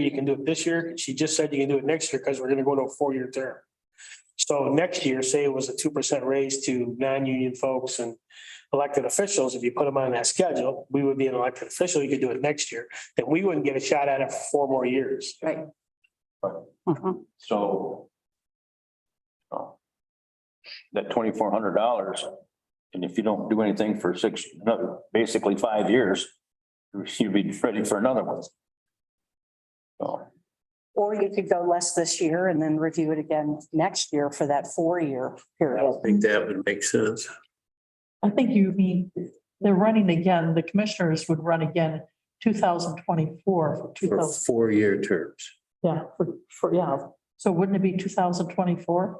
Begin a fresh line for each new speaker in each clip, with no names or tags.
you can do it this year. She just said you can do it next year because we're gonna go to a four-year term. So next year, say it was a two percent raise to non-union folks and elected officials, if you put them on that schedule, we would be an elected official. You could do it next year. And we wouldn't get a shot at it for four more years.
Right. Mhm.
So. so That twenty-four hundred dollars, and if you don't do anything for six, another, basically five years, you'd be ready for another one. So,
Or you could go less this year and then review it again next year for that four-year period.
think that would make sense.
I think you mean, they're running again, the commissioners would run again two thousand twenty-four for two
For
thousand,
four-year terms.
yeah, for, for, yeah. So wouldn't it be two thousand twenty-four?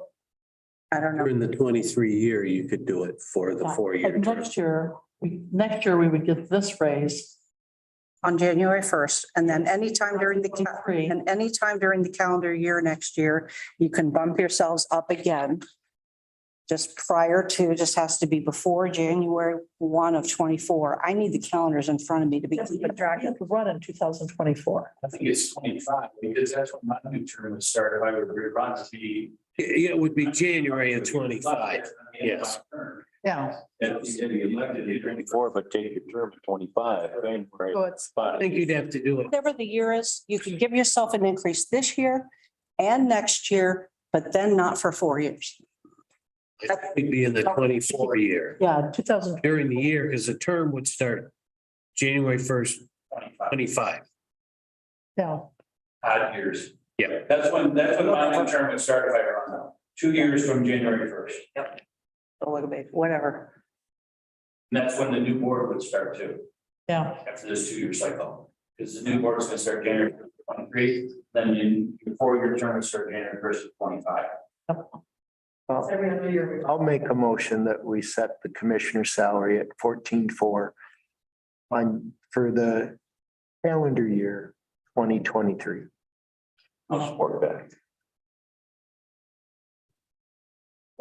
I don't know.
During the twenty-three year, you could do it for the four-year term.
Next year, we, next year we would get this raise.
on January first, and then anytime during the, ca-
23.
and anytime during the calendar year next year, you can bump yourselves up again. Just prior to, just has to be before January one of twenty-four. I need the calendars in front of me to be keeping track of.
Run in two thousand twenty-four.
I think it's twenty-five, because that's when my new term would start, if I would rerun to be.
It would be January of twenty-five. yes.
Yeah.
And if you get elected, you're going
Twenty-four, but take your term to twenty-five, January,
So it's,
I
five.
think you'd have to do it.
Whatever the year is, you can give yourself an increase this year and next year, but then not for four years.
It'd be in the twenty-four year,
yeah, two thousand,
during the year, because the term would start January first,
twenty-five,
twenty-five.
yeah.
odd years.
Yeah.
That's when, that's when my new term would start, if I run now, two years from January first.
A little bit, whatever.
And that's when the new board would start too.
Yeah.
After this two-year cycle, because the new board's gonna start January first of twenty-three, then in your four-year term would start January first of twenty-five.
I'll make a motion that we set the commissioner's salary at fourteen four on, for the calendar year twenty twenty-three.
I'll support that.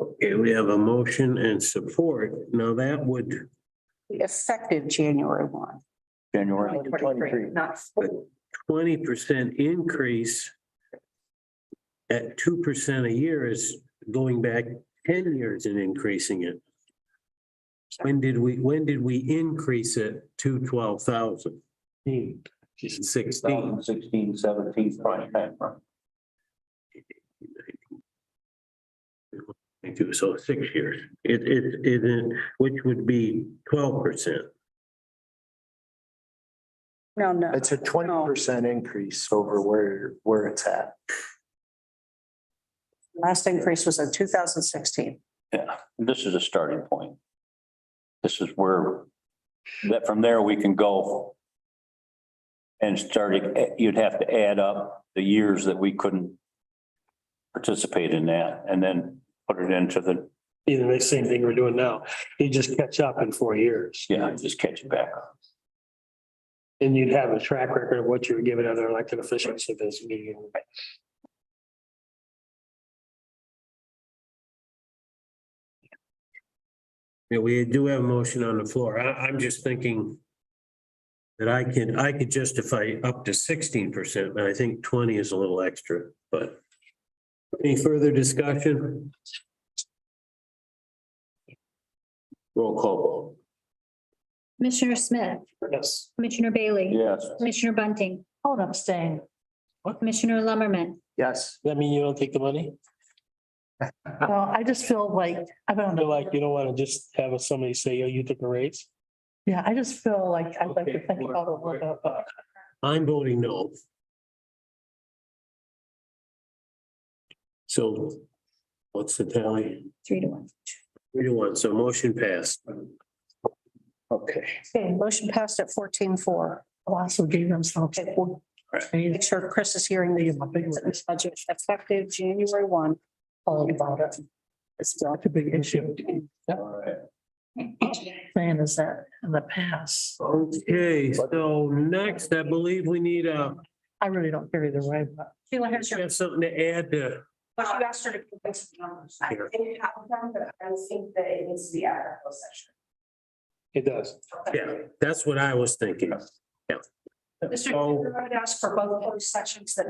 Okay, we have a motion and support. Now that would,
Effective January one.
January,
2023, Not four.
twenty percent increase at two percent a year is going back ten years and increasing it. When did we, when did we increase it to twelve thousand? Sixteen.
16, 17, prime time, right?
Thank you. So six years. It, it, it, is- which would be twelve percent.
No, no.
It's a twenty percent increase over where, where it's at.
Last increase was in two thousand sixteen.
Yeah, this is a starting point. This is where, that from there we can go. And starting, you'd have to add up the years that we couldn't participate in that and then put it into the,
Either the same thing we're doing now. You just catch up in four years.
yeah, just catch it back up.
And you'd have a track record of what you were giving other elected officials at this meeting.
Yeah, we do have a motion on the floor. I, I'm just thinking that I can, I could justify up to sixteen percent, but I think twenty is a little extra, but any further discussion? Roll call
Commissioner Smith,
Yes.
Commissioner Bailey,
Yes.
Commissioner Bunting,
Oh, and I'm staying.
Commissioner Lumberman.
Yes.
That mean you don't take the money?
Well, I just feel like, I don't
They're
know,
like, you don't want to just have somebody say, oh, you took a raise?
yeah, I just feel like I'd like to think about it a little bit. but-
vote. I'm voting no. So what's the tally?
Three to one.
Three to one, so motion passed. Okay.
Okay, motion passed at fourteen four.
Also gave themselves.
Make sure Chris is hearing the budget effective January one.
All about it. It's not a big issue.
All right.
Saying is that in the past,
Okay, so next, I believe we need a,
I really don't care either way, but
Sheila has
you have something to add to,
But you asked her to give us the numbers. I
Here.
didn't have them, but I think that it needs to be out of closed session.
It does.
yeah, that's what I was thinking.
Mr. Chair, I would ask for both those sections that